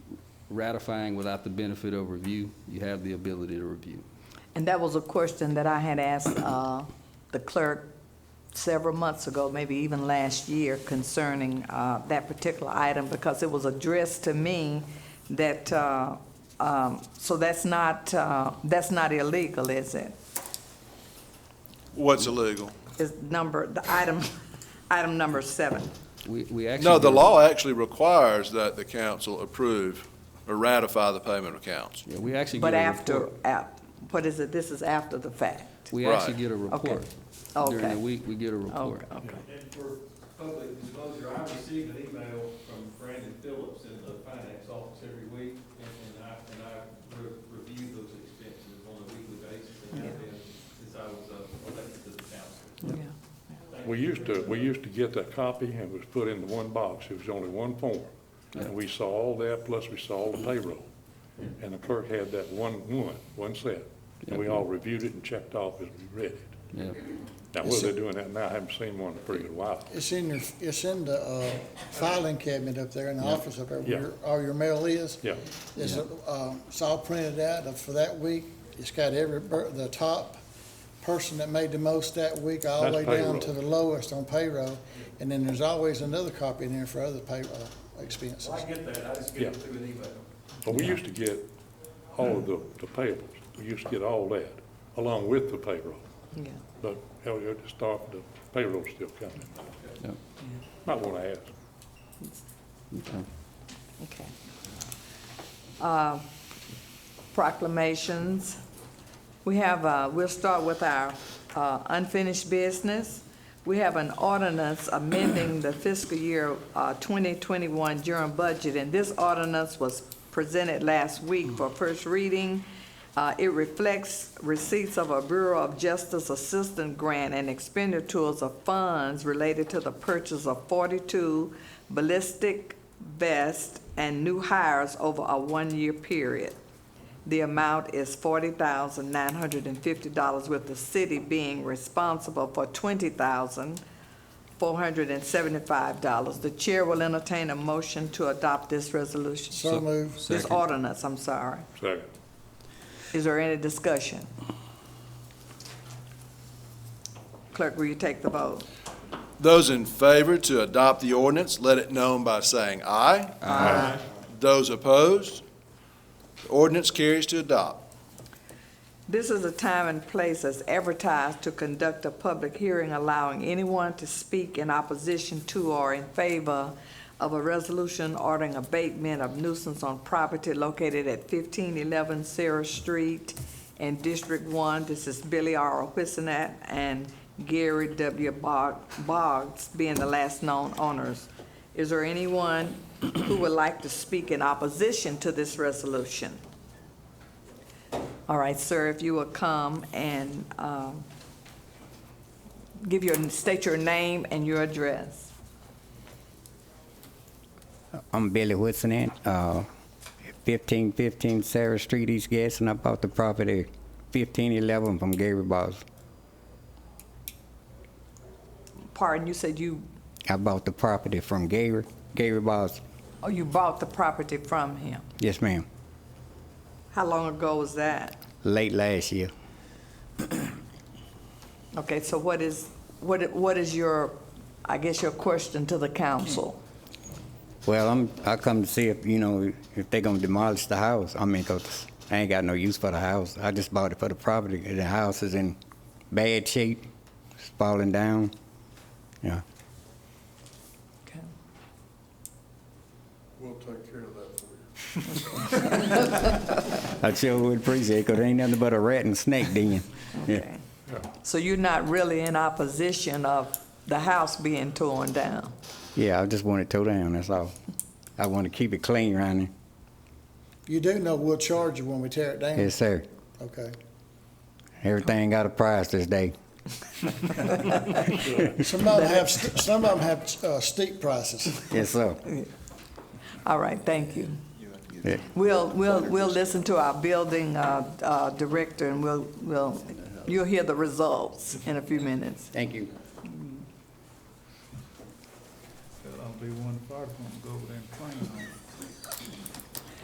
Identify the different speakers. Speaker 1: ratifying without the benefit of review, you have the ability to review.
Speaker 2: And that was a question that I had asked uh, the clerk several months ago, maybe even last year, concerning uh, that particular item, because it was addressed to me that, uh, um, so that's not, uh, that's not illegal, is it?
Speaker 3: What's illegal?
Speaker 2: Is number, the item, item number seven.
Speaker 1: We, we actually.
Speaker 3: No, the law actually requires that the council approve or ratify the payment of accounts.
Speaker 1: Yeah, we actually
Speaker 2: But
Speaker 1: get a
Speaker 2: after,
Speaker 1: report.
Speaker 2: ap- what is it, this is after the fact?
Speaker 1: We
Speaker 3: Right.
Speaker 1: actually get a report. During
Speaker 2: Okay.
Speaker 1: the week, we get a report.
Speaker 2: Okay, okay.
Speaker 4: And for public disclosure, I receive an email from Brandon Phillips in the finance office every week, and and I, and I re- review those expenses on a weekly basis, and I've been since I was uh, elected to the council.
Speaker 2: Yeah.
Speaker 5: We used to, we used to get that copy and it was put into one box. It was only one form. And we saw all that, plus we saw all the payroll. And the clerk had that one, one, one set. And we all reviewed it and checked off as we read it.
Speaker 1: Yeah.
Speaker 5: Now, whether they're doing that now, I haven't seen one in a pretty good while.
Speaker 6: It's in your, it's in the uh, filing cabinet up there in the office up there where
Speaker 5: Yeah.
Speaker 6: your- all your mail is.
Speaker 5: Yeah.
Speaker 6: It's, uh, it's all printed out of- for that week. It's got every, bur- the top person that made the most that week, all the way
Speaker 5: That's
Speaker 6: down
Speaker 5: payroll.
Speaker 6: to the lowest on payroll. And then there's always another copy in there for other payroll expenses.
Speaker 4: Well, I get that, I just get it
Speaker 5: Yeah.
Speaker 4: through an email.
Speaker 5: But we used to get all of the, the payables. We used to get all that, along with the payroll.
Speaker 2: Yeah.
Speaker 5: But hell, you just start, the payroll's still coming.
Speaker 1: Yeah.
Speaker 5: Might want to ask.
Speaker 1: Okay.
Speaker 2: Okay. Uh, Proclamations. We have, uh, we'll start with our uh, unfinished business. We have an ordinance amending the fiscal year uh, 2021 Durham budget, and this ordinance was presented last week for first reading. Uh, It reflects receipts of a Bureau of Justice Assistant Grant and expenditures of funds related to the purchase of 42 ballistic vests and new hires over a one-year period. The amount is forty thousand nine hundred and fifty dollars, with the city being responsible for twenty thousand four hundred and seventy-five dollars. The chair will entertain a motion to adopt this resolution.
Speaker 6: So moved.
Speaker 2: This
Speaker 1: Second.
Speaker 2: ordinance, I'm sorry.
Speaker 5: Second.
Speaker 2: Is there any discussion? Clerk, will you take the vote?
Speaker 3: Those in favor to adopt the ordinance, let it known by saying aye. Aye. Those opposed, the ordinance carries to adopt.
Speaker 2: This is a time and place as advertised to conduct a public hearing allowing anyone to speak in opposition to or in favor of a resolution ordering abatement of nuisance on property located at fifteen eleven Sarah Street in District One. This is Billy R. Whissinet and Gary W. Bog- Boggs being the last known owners. Is there anyone who would like to speak in opposition to this resolution? All right, sir, if you will come and um, give your, state your name and your address.
Speaker 7: I'm Billy Whitson, uh, fifteen fifteen Sarah Street, East Gadsden. I bought the property fifteen eleven from Gary Boss.
Speaker 2: Pardon, you said you,
Speaker 7: I bought the property from Gary, Gary Boss.
Speaker 2: oh, you bought the property from him.
Speaker 7: Yes, ma'am.
Speaker 2: How long ago was that?
Speaker 7: Late last year.
Speaker 2: Okay, so what is, what, i- what is your, I guess your question to the council?
Speaker 7: Well, I'm, I come to see if, you know, if they gonna demolish the house. I mean, 'cause I ain't got no use for the house. I just bought it for the property. and The house is in bad shape. It's falling down. Yeah.
Speaker 2: Okay.
Speaker 3: We'll take care of that for you.
Speaker 7: I sure would appreciate it, 'cause there ain't nothing but a rat and snake den.
Speaker 2: Okay. So you're not really in opposition of the house being torn down?
Speaker 7: Yeah, I just want it towed down, that's all. I want to keep it clean around here.
Speaker 6: You do know we'll charge you when we tear it down.
Speaker 7: Yes, sir.
Speaker 6: Okay.
Speaker 7: Everything got a price this day.
Speaker 6: Some of them have, st- some of them have uh, steep prices.
Speaker 7: Yes, sir.
Speaker 2: All right, thank you.
Speaker 7: Yeah.
Speaker 2: We'll, we'll, we'll listen to our building uh, uh, director, and we'll, we'll, you'll hear the results in a few minutes.
Speaker 7: Thank you.
Speaker 8: I'll be one fire department, go over there and train on it.